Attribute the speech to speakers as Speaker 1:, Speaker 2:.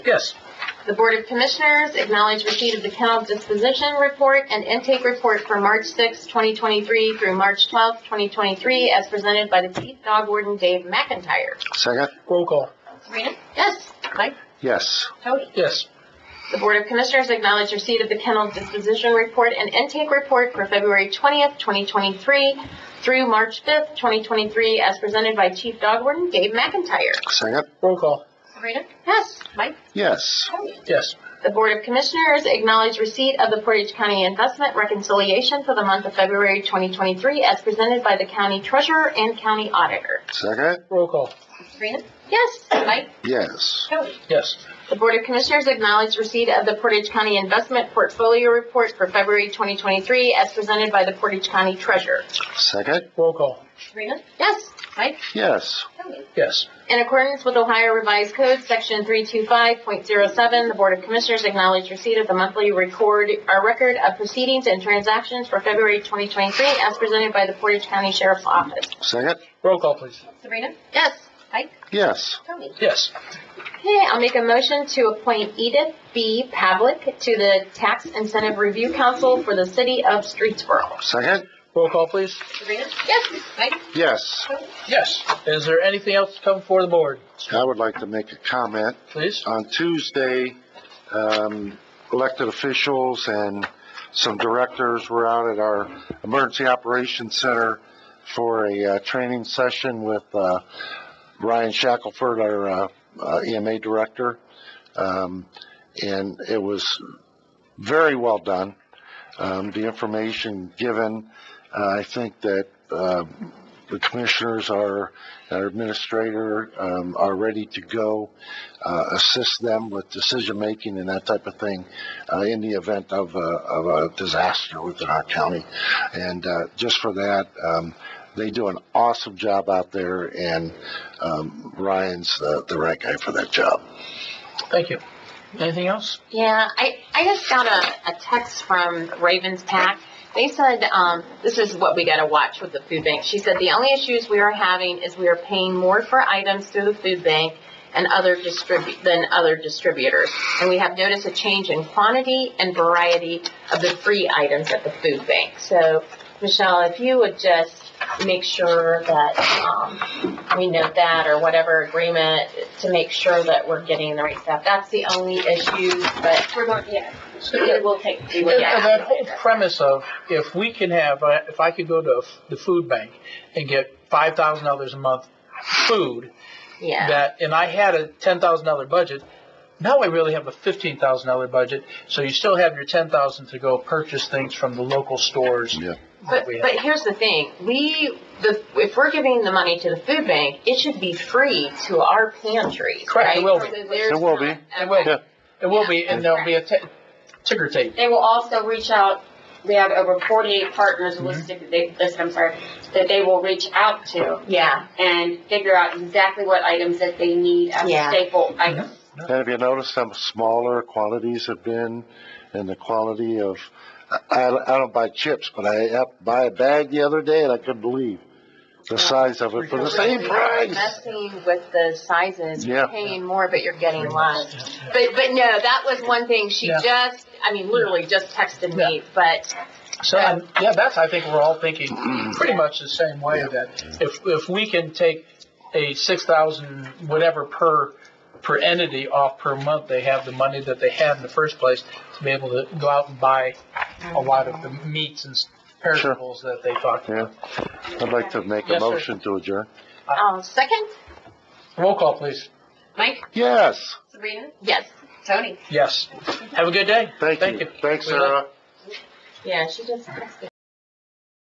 Speaker 1: Yes.
Speaker 2: The Board of Commissioners acknowledge receipt of the kennel disposition report and intake report for March 6, 2023 through March 12, 2023, as presented by the Chief Dog Warden Dave McIntyre.
Speaker 3: Second?
Speaker 1: Roll call.
Speaker 2: Sabrina? Yes. Mike?
Speaker 3: Yes.
Speaker 2: Tony?
Speaker 1: Yes.
Speaker 2: The Board of Commissioners acknowledge receipt of the kennel disposition report and intake report for February 20th, 2023 through March 5th, 2023, as presented by Chief Dog Warden Dave McIntyre.
Speaker 3: Second?
Speaker 1: Roll call.
Speaker 2: Sabrina? Yes. Mike?
Speaker 3: Yes.
Speaker 2: Tony?
Speaker 1: Yes.
Speaker 2: The Board of Commissioners acknowledge receipt of the Portage County Investment Reconciliation for the month of February 2023 as presented by the County Treasurer and County Auditor.
Speaker 3: Second?
Speaker 1: Roll call.
Speaker 2: Sabrina? Yes. Mike?
Speaker 3: Yes.
Speaker 2: Tony?
Speaker 1: Yes.
Speaker 2: The Board of Commissioners acknowledge receipt of the Portage County Investment Portfolio Report for February 2023 as presented by the Portage County Treasurer.
Speaker 3: Second?
Speaker 1: Roll call.
Speaker 2: Sabrina? Yes. Mike?
Speaker 3: Yes.
Speaker 2: Tony?
Speaker 1: Yes.
Speaker 2: In accordance with Ohio Revised Code, Section 325.07, the Board of Commissioners acknowledge receipt of the monthly record, or record of proceedings and transactions for February 2023 as presented by the Portage County Sheriff's Office.
Speaker 3: Second?
Speaker 1: Roll call, please.
Speaker 2: Sabrina? Yes. Mike?
Speaker 3: Yes.
Speaker 2: Tony?
Speaker 1: Yes.
Speaker 2: Okay, I'll make a motion to appoint Edith B. Pavlik to the Tax Incentive Review Council for the City of Streetsboro.
Speaker 3: Second?
Speaker 1: Roll call, please.
Speaker 2: Sabrina? Yes. Mike?
Speaker 3: Yes.
Speaker 1: Yes. Is there anything else to come before the board?
Speaker 3: I would like to make a comment.
Speaker 1: Please.
Speaker 3: On Tuesday, um, elected officials and some directors were out at our Emergency Operations Center for a, uh, training session with, uh, Ryan Shackelford, our, uh, uh, EMA director. Um, and it was very well done. Um, the information given, uh, I think that, uh, the commissioners are, our administrator, um, are ready to go uh, assist them with decision making and that type of thing uh, in the event of a, of a disaster within our county. And uh, just for that, um, they do an awesome job out there, and um, Ryan's the, the right guy for that job.
Speaker 1: Thank you. Anything else?
Speaker 2: Yeah, I, I just got a, a text from Ravens Pack. They said, um, this is what we gotta watch with the food bank. She said, the only issues we are having is we are paying more for items through the food bank and other distribu, than other distributors. And we have noticed a change in quantity and variety of the free items at the food bank. So, Michelle, if you would just make sure that, um, we note that or whatever agreement to make sure that we're getting the right stuff. That's the only issue, but
Speaker 4: We're going, yeah,
Speaker 1: Yeah.
Speaker 4: we will take.
Speaker 2: we would,
Speaker 1: And
Speaker 2: yeah.
Speaker 1: and that whole premise of if we can have, uh, if I could go to the food bank and get five thousand dollars a month food,
Speaker 2: Yeah,
Speaker 1: that, and I had a ten thousand dollar budget. Now I really have a fifteen thousand dollar budget, so you still have your ten thousand to go purchase things from the local stores
Speaker 3: Yeah.
Speaker 2: but,
Speaker 1: that we
Speaker 2: but
Speaker 1: have.
Speaker 2: here's the thing, we, the, if we're giving the money to the food bank, it should be free to our pantries,
Speaker 1: Correct, it
Speaker 2: right?
Speaker 1: will be.
Speaker 2: So there's
Speaker 3: It
Speaker 2: not-
Speaker 3: will be.
Speaker 1: It will
Speaker 3: Yeah.
Speaker 1: It will be, and there'll be a ta- ticker tape.
Speaker 4: They will also reach out, they have over forty-eight partners listed, that they, listed, I'm sorry, that they will reach out to
Speaker 2: Yeah,
Speaker 4: and figure out exactly what items that they need as
Speaker 2: Yeah.
Speaker 4: staple items.
Speaker 3: And have you noticed how smaller quantities have been and the quality of, I, I don't buy chips, but I up- buy a bag the other day and I couldn't believe the size of it for the same price.
Speaker 2: messing with the sizes,
Speaker 3: Yeah.
Speaker 2: you're paying more, but you're getting less. But, but no, that was one thing, she
Speaker 1: Yeah.
Speaker 2: just, I mean, literally just texted me, but,
Speaker 1: So, um, yeah, that's, I think we're all thinking pretty much the same way, that if, if we can take a six thousand whatever per, per entity off per month, they have the money that they had in the first place to be able to go out and buy a lot of the meats and perishables that they talked
Speaker 3: Yeah,
Speaker 1: about.
Speaker 3: I'd like to make
Speaker 1: Yes,
Speaker 3: a
Speaker 1: sir.
Speaker 3: motion to adjourn.
Speaker 2: um, second?
Speaker 1: Roll call, please.
Speaker 2: Mike?
Speaker 3: Yes,
Speaker 4: Sabrina?
Speaker 2: Yes.
Speaker 4: Tony?
Speaker 1: Yes. Have a good day.
Speaker 3: thank you. Thanks,
Speaker 1: We love-
Speaker 3: Sarah.
Speaker 2: Yeah, she just texted